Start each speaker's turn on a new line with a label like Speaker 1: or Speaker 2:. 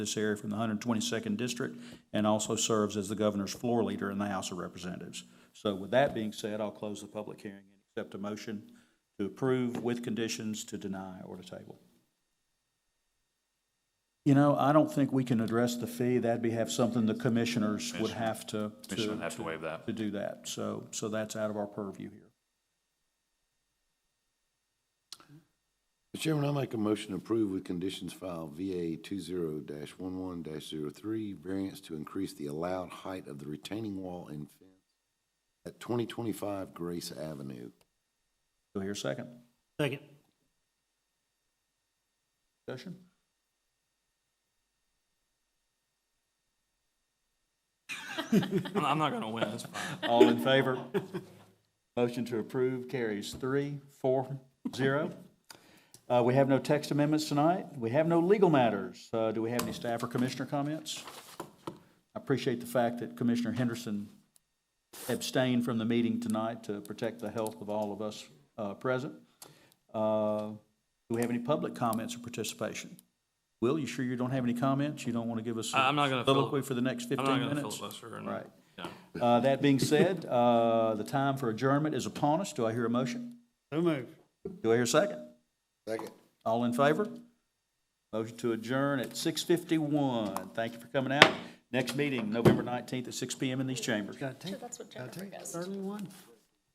Speaker 1: this area from the 122nd District and also serves as the governor's floor leader in the House of Representatives. So with that being said, I'll close the public hearing and accept a motion to approve with conditions to deny or to table. You know, I don't think we can address the fee. That'd be, have something the commissioners would have to. to-
Speaker 2: Commission would have to waive that.
Speaker 1: To do that. So, so that's out of our purview here.
Speaker 3: Mr. Chairman, I make a motion to approve with conditions filed VA two zero dash one one dash zero three, variance to increase the allowed height of the retaining wall and fence at twenty twenty-five Grace Avenue.
Speaker 1: Do I hear a second?
Speaker 4: Second.
Speaker 1: Discussion?
Speaker 2: I'm, I'm not gonna win, that's fine.
Speaker 1: All in favor? Motion to approve carries three, four, zero. Uh, we have no text amendments tonight. We have no legal matters. Uh, do we have any staff or commissioner comments? I appreciate the fact that Commissioner Henderson abstained from the meeting tonight to protect the health of all of us, uh, present. Uh, do we have any public comments or participation? Will, you sure you don't have any comments? You don't want to give us a
Speaker 2: I- I'm not gonna fili-
Speaker 1: soliloquy for the next
Speaker 2: I'm
Speaker 1: fifteen
Speaker 2: not
Speaker 1: minutes?
Speaker 2: gonna filibuster and,
Speaker 1: Right.
Speaker 2: you know,
Speaker 1: Uh, That being said, uh, the time for adjournment is upon us. Do I hear a motion?
Speaker 4: So moved.
Speaker 1: Do I hear a second?
Speaker 3: Second.
Speaker 1: All in favor? Motion to adjourn at 6:51. Thank you for coming out. Next meeting, November 19th at 6 PM in these chambers.
Speaker 4: Gotta take,
Speaker 5: That's what
Speaker 4: gotta
Speaker 5: Jennifer
Speaker 4: take
Speaker 5: does.
Speaker 4: the early one.